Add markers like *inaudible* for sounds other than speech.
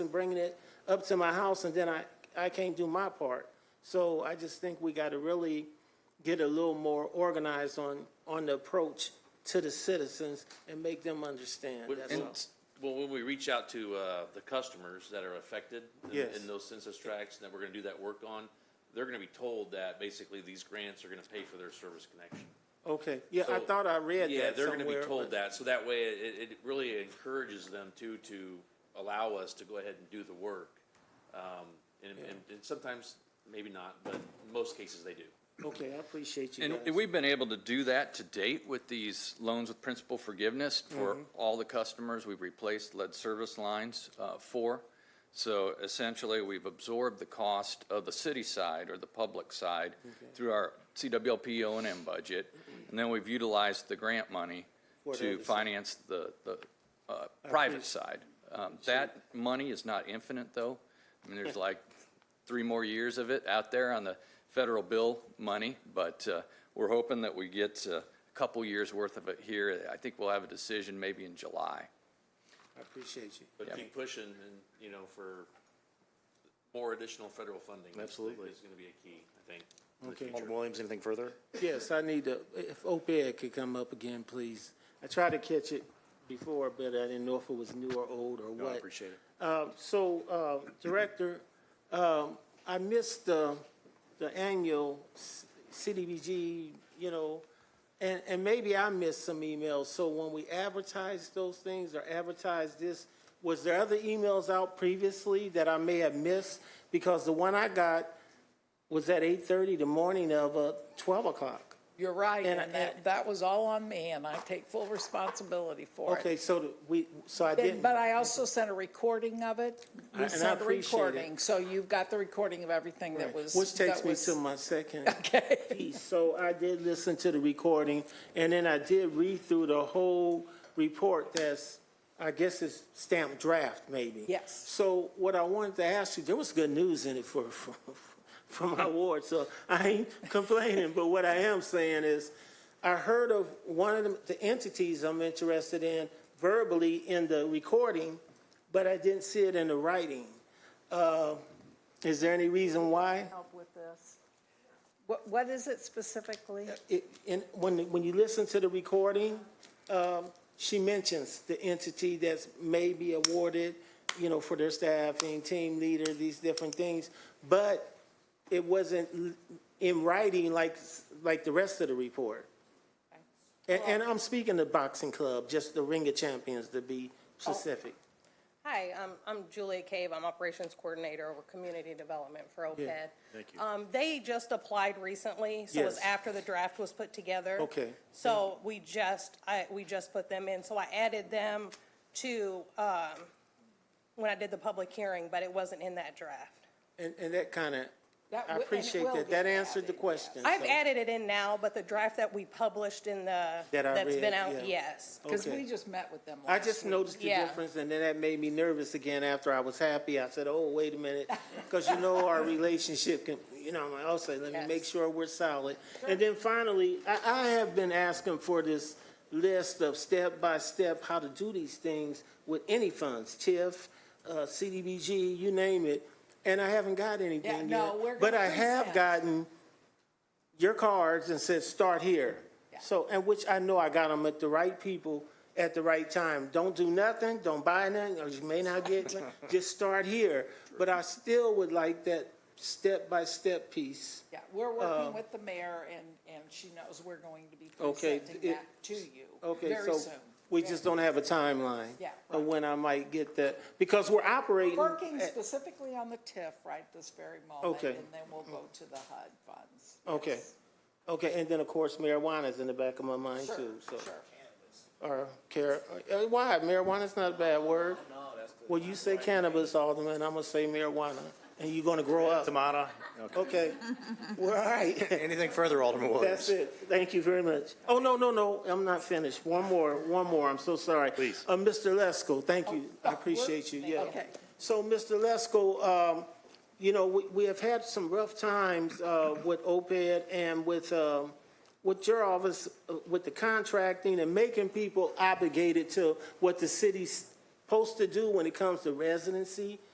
bringing it up to my house, and then I, I can't do my part. So I just think we gotta really get a little more organized on, on the approach to the citizens and make them understand, that's all. And, well, when we reach out to, uh, the customers that are affected in- Yes. in those census tracts that we're gonna do that work on, they're gonna be told that basically these grants are gonna pay for their service connection. Okay, yeah, I So- thought I read that Yeah, they're gonna be somewhere, told but- that, so that way it, it really encourages them to, to allow us to go ahead and do the work. Um, and, and and sometimes, maybe not, but in most cases they do. Okay, I appreciate you And guys. and we've been able to do that to date with these loans with principal forgiveness for Mm-hmm. all the customers we've replaced lead service lines uh, for. So essentially, we've absorbed the cost of the city side or the public side through our CWLP O and M budget. Mm-hmm. And then we've utilized the grant money For the to other side. finance the, the uh, private side. Um, That money is not infinite, though. I mean, there's like three more years of it out there on the federal bill money, but uh, we're hoping that we get uh, a couple years' worth of it here. I think we'll have a decision maybe in July. I appreciate you. But keep pushing and, you know, for more additional federal funding. is- Absolutely. Is gonna be a key, I think. Okay. Alderman Williams, anything further? Yes, I need to, if op-ed could come up again, please. I tried to catch it before, but I didn't know if it was new or old or what. I appreciate it. Uh, So, uh, Director, um, I missed the, the annual C- CDBG, you know, and, and maybe I missed some emails. So when we advertised those things or advertised this, was there other emails out previously that I may have missed? Because the one I got was at 8:30 the morning of uh, 12 o'clock. You're right, And I- and that, that was all on me, and I take full responsibility for Okay, it. so the- we, so I Then- didn't. But I also sent a recording of it. I- We and I sent a appreciate it. recording, so you've got the recording of everything that was. Which takes that me was- to my *laughs* second piece. So I did listen to the recording, and then I did read through the whole report that's, I guess it's stamped draft, maybe. Yes. So what I wanted to ask you, there was good news in it for, *laughs* for, for my ward, so I ain't *laughs* complaining, but what I am saying is, I heard of one of the- the entities I'm interested in verbally in the recording, but I didn't see it in the writing. Uh, Is there any reason why? Help with this. What, what is it specifically? it, and when, when you listen to the recording, um, she mentions the entity that's maybe awarded, you know, for their staffing, team leader, these different things, but it wasn't l- in writing like, like the rest of the report. And, and I'm speaking the boxing club, just the Ring of Champions to be specific. Hi, um, I'm Julia Cave. I'm Operations Coordinator over Community Development for OPED. Thank you. Um, They just applied recently, so it was Yes. after the draft was put together. Okay. So we just, I, we just put them in. So I added them to, um, when I did the public hearing, but it wasn't in that draft. And, and that kind of, I That wi- and it appreciate will that. get That answered the added, yes. question. I've so- added it in now, but the draft that we published in the, That I that's read, been yeah. out, yes. Because Okay. we just met with them I last just week. noticed the Yeah. difference, and then that made me nervous again after I was happy. I said, oh, wait a minute, because you know our relationship can, you know, I'm also, let me make Yes. sure we're solid. And then finally, I, I have been asking for this list of step-by-step how to do these things with any funds, TIF, uh, CDBG, you name it, and I haven't got anything yet. no, we're But gonna I have present. gotten your cards and said, start here. So, and which I know I got them at the right people at the right time. Don't do nothing, don't buy nothing, or you may not get, *laughs* just start here. But I still would like that step-by-step piece. Yeah, we're Uh, working with the mayor, and, and she knows we're going to be Okay, presenting it- that to you Okay, very so soon. we just don't have a timeline. Yeah, Of right. when I might get that, because we're operating. Working at- specifically on the TIF right this very moment, eh, Okay. and then we'll go to the HUD funds. Okay, Yes. okay, and then, of course, marijuana's in the back of my mind Sure, too, so. sure. Or care, uh, why? Marijuana's not a bad word. Well, you say cannabis, Alderman, I'm gonna say marijuana, and you're gonna grow up. Tamada, Okay, well, all right, anything further, Alderman Williams? that's it, thank you very much. Oh, no, no, no, I'm not finished, one more, one more, I'm so sorry. Please. Uh, Mr. Lesko, thank you, I appreciate you, yeah. Okay. So, Mr. Lesko, um, you know, we, we have had some rough times, uh, with OPED and with, um, with your office, uh, with the contracting and making people obligated to what the city's supposed to do when it comes to residency